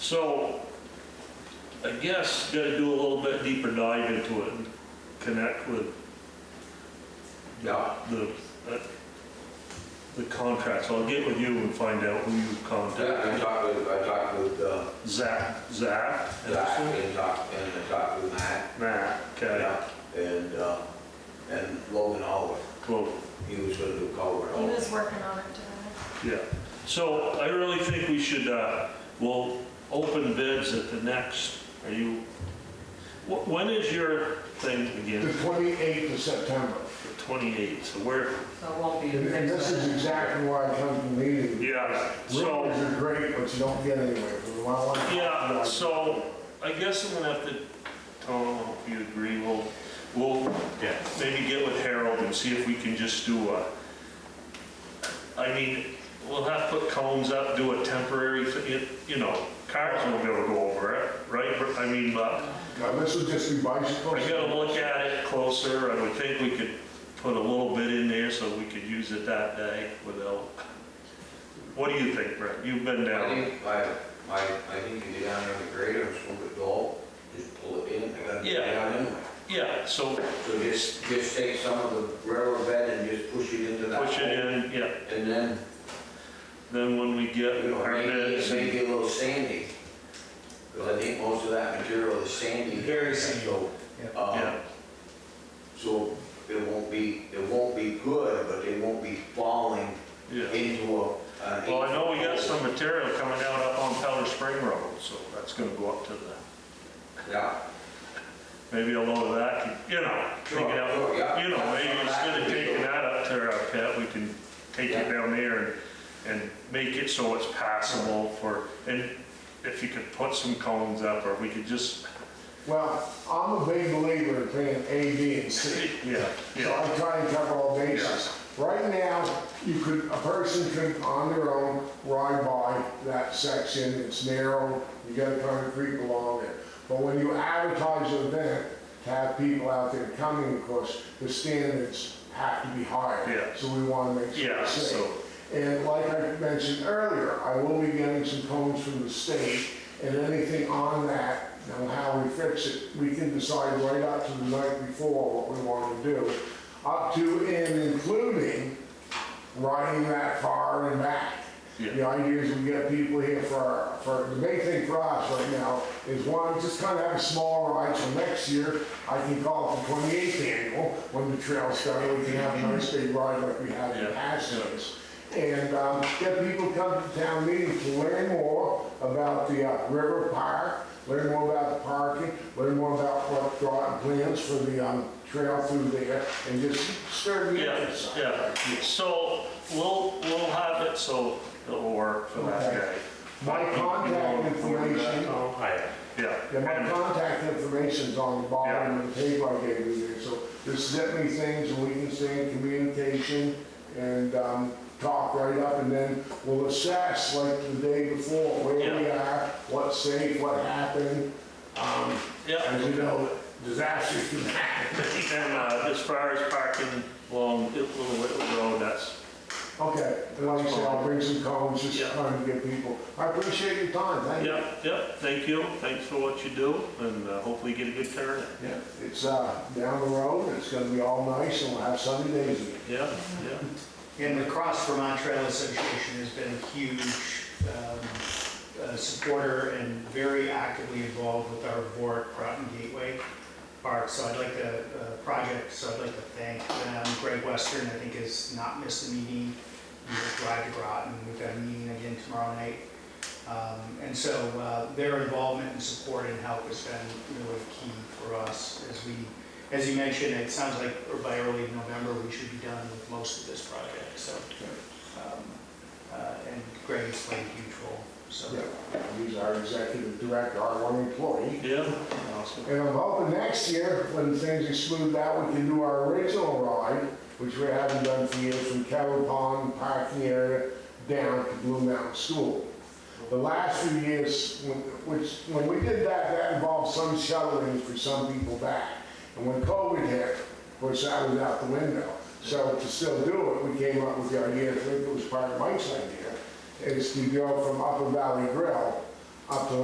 So I guess gotta do a little bit deeper dive into it and connect with Yeah, the, uh, the contracts. I'll get with you and find out who you I contacted. talked with, I talked with, uh, Zach, Zach? Zach Anderson? and talked, and I talked with Matt. Matt, okay, Yeah, And, uh, and Logan Oliver, cool, he was gonna do culvert He over. was working on it today. yeah. So I really think we should, uh, we'll open bids at the next, are you, wh- when is your thing The again? 28th of September. The 28th, so we're, So it won't be a And fix. this is exactly why I come to the meeting. yeah, so. Rumors are great, but you don't get anywhere. We want to- Yeah, so I guess I'm gonna have to, Tom, if you agree, we'll, we'll maybe get with Harold and see if we can just do a, I mean, we'll have to put cones up, do a temporary, thi- you- you know, cars won't be able to go over it, right? But, I mean, but Now, This would just be bicycles. I gotta look at it closer. I would think we could put a little bit in there so we could use it that day without, what do you think, Brett? You've been I down. think, I, I, I think you get down there with a grader, swoop it all, just pull it in, and then get Yeah. it out anyway. Yeah, so So just, just take some of the railroad bed and just push it into that. push it hole. in, yeah. And then, Then when we get you know, our maybe, bids, maybe a little sandy. Because I think most of that material is sandy. Very sandy. So, um, yeah, So it won't be, it won't be good, but they won't be falling yeah. into a. uh, an Well, I know we got eight-foot some material coming out up on Powder Spring Road, so that's gonna go up to the, hole. Yeah. maybe a load of that, could- you know, take it out. Sure, yeah. You know, maybe instead That of could be taking good. that up to our pit, we can take it Yeah. down there and, and make it so it's passable for, and if you could put some cones up, or we could just, Well, I'm a big believer in paying A, B, and C. yeah, So yeah, I try and cover all bases. Right now, you could, a person could, on their own, ride by that section, it's narrow, you got concrete along it. But when you advertise an event, to have people out there coming, of course, the standards have to be higher. Yeah. So we want to make sure yeah, it's safe. so, And like I mentioned earlier, I will be getting some cones from the state, and anything on that, and how we fix it, we can decide right up to the night before what we want to do, up to and including riding that far and back. The yeah, idea is we get people here for, for, the main thing for us right now is one, just kind of have a small ride, so next year, I can call it the 28th annual, when the trail's done, we can have a nice big ride like we had in Yeah. the past years. And, um, get people to come to town meeting to learn more about the uh, river park, learn more about the parking, learn more about what Groton plans for the, um, trail through there, and just stir the yeah, interest. yeah. So we'll, we'll have it, so it'll work for that Okay. guy. My contact uh, information Oh, Yeah. Yeah, my contact information's on the bottom of the paper I gave you there, so just send me things and we can stay in communication and, um, talk right up and then we'll assess like the day before, where we are, what's safe, what happened. Um, Yeah, as you know, disasters can happen. and uh, as far as parking along Little Whittle Road, that's, Okay, and like I said, I'll bring some cones, Yeah. just trying to get people, I appreciate your time, thank you. yep, yep, thank you, thanks for what you do, and uh, hopefully get a good turnout. Yeah. It's, uh, down the road, it's gonna be all nice and we'll have sunny days again. Yeah, yeah. And the Cross Vermont Trail Association has been a huge um, uh, supporter and very actively involved with our Vork Groton Gateway Park. So I'd like to, uh, project, so I'd like to thank them. Greg Western, I think, has not missed a meeting. He was drive to Groton. We've got a meeting again tomorrow night. Um, And so uh, their involvement and support and help has been really key for us as we as you mentioned, it sounds like by early November, we should be done with most of this project, so. um, uh, And Greg has played a huge role, so. Yeah, He's our executive director, our one employee. Yeah, And I'm hoping next year, when things are smoothed out, we can do our original ride, which we haven't done for years, from Carroll Pond parking area down to Blue Mountain School. The last few years, when- which, when we did that, that involved some shuttling for some people back. And when COVID hit, of course, that was out the window. So to still do it, we came up with the idea, I think it was part of Mike's idea, is to go from Upper Valley Grill up to